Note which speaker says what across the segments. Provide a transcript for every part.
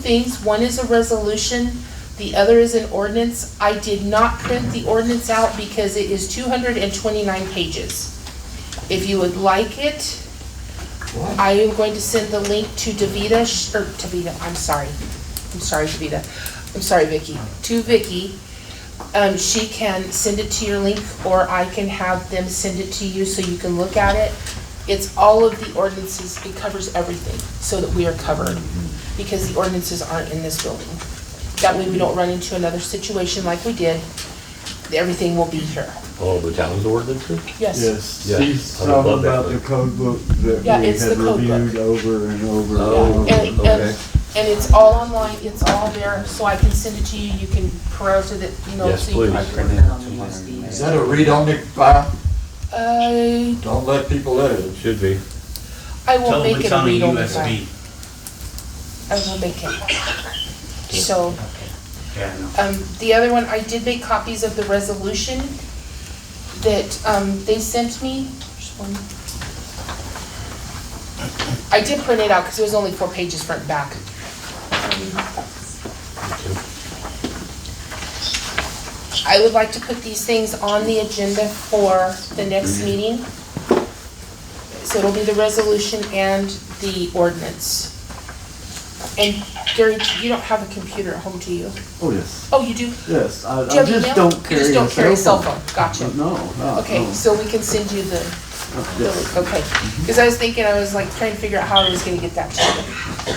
Speaker 1: things. One is a resolution, the other is an ordinance. I did not print the ordinance out because it is two hundred and twenty-nine pages. If you would like it, I am going to send the link to Davita, Sh- or Davita, I'm sorry. I'm sorry, Davita. I'm sorry, Vicky. To Vicky. Um, she can send it to your link, or I can have them send it to you so you can look at it. It's all of the ordinances, it covers everything, so that we are covered, because the ordinances aren't in this building. That way we don't run into another situation like we did. Everything will be here.
Speaker 2: Oh, the town's ordinances?
Speaker 1: Yes.
Speaker 3: Yes,
Speaker 2: Yeah,
Speaker 3: she's
Speaker 2: I would love
Speaker 3: talking
Speaker 2: that
Speaker 3: about the
Speaker 2: book.
Speaker 3: code book that we
Speaker 1: Yeah, it's
Speaker 3: had
Speaker 1: the code book.
Speaker 3: reviewed over and over and
Speaker 2: Oh,
Speaker 3: over.
Speaker 1: Yeah, and- and-
Speaker 2: okay.
Speaker 1: And it's all online, it's all there, so I can send it to you, you can peruse it, you know,
Speaker 2: Yes,
Speaker 1: so you can.
Speaker 2: please.
Speaker 1: print it.
Speaker 4: Is that a read-only file?
Speaker 1: I,
Speaker 4: Don't let people edit it.
Speaker 2: Should be.
Speaker 1: uh, I will
Speaker 5: Tell them
Speaker 1: make
Speaker 5: it's
Speaker 1: it a
Speaker 5: on a
Speaker 1: read-only file.
Speaker 5: USB.
Speaker 1: I will make it. So,
Speaker 5: Yeah, I know.
Speaker 1: um, the other one, I did make copies of the resolution that, um, they sent me. There's one. I did print it out, cause it was only four pages front and back. I would like to put these things on the agenda for the next meeting. So it'll be the resolution and the ordinance. And Gary, you don't have a computer at home, do you?
Speaker 3: Oh, yes,
Speaker 1: Oh, you do?
Speaker 3: yes, I,
Speaker 1: Do you
Speaker 3: I
Speaker 1: have email?
Speaker 3: just don't carry
Speaker 1: You just don't carry a cell phone,
Speaker 3: Uh,
Speaker 1: gotcha.
Speaker 3: No, no,
Speaker 1: Okay,
Speaker 3: no.
Speaker 1: so we can send you the, the-
Speaker 3: Yes. Mm-hmm.
Speaker 1: okay. Because I was thinking, I was like trying to figure out how I was gonna get that to you.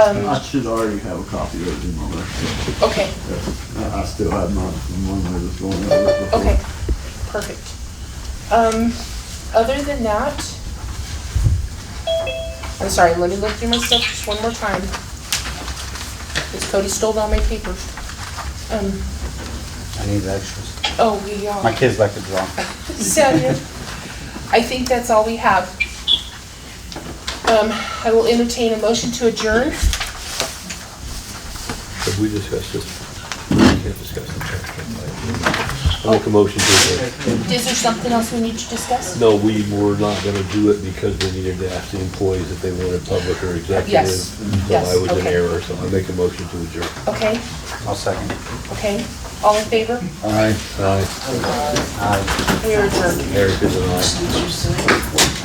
Speaker 1: Um,
Speaker 3: I should already have a copy of it in my left.
Speaker 1: okay,
Speaker 3: I I still have mine from one that was going over it before.
Speaker 1: okay, perfect. Um, other than that, I'm sorry, let me look through my stuff just one more time. Because Cody stole all my papers. Um,
Speaker 6: I need the extras.
Speaker 1: oh, yeah.
Speaker 6: My kids like to draw.
Speaker 1: Samuel, I think that's all we have. Um, I will entertain a motion to adjourn.
Speaker 2: Have we discussed this? We can't discuss it. I'll make a motion to adjourn.
Speaker 1: Is there something else we need to discuss?
Speaker 2: No, we were not gonna do it because we needed to ask the employees if they wanted public or executive.
Speaker 1: Yes,
Speaker 2: So
Speaker 1: yes,
Speaker 2: I was in
Speaker 1: okay.
Speaker 2: error, so I make a motion to adjourn.
Speaker 1: Okay,
Speaker 6: I'll second.
Speaker 1: okay. All in favor?
Speaker 6: All right.
Speaker 2: Aye,
Speaker 1: We are adjourned.
Speaker 2: Eric is an aye.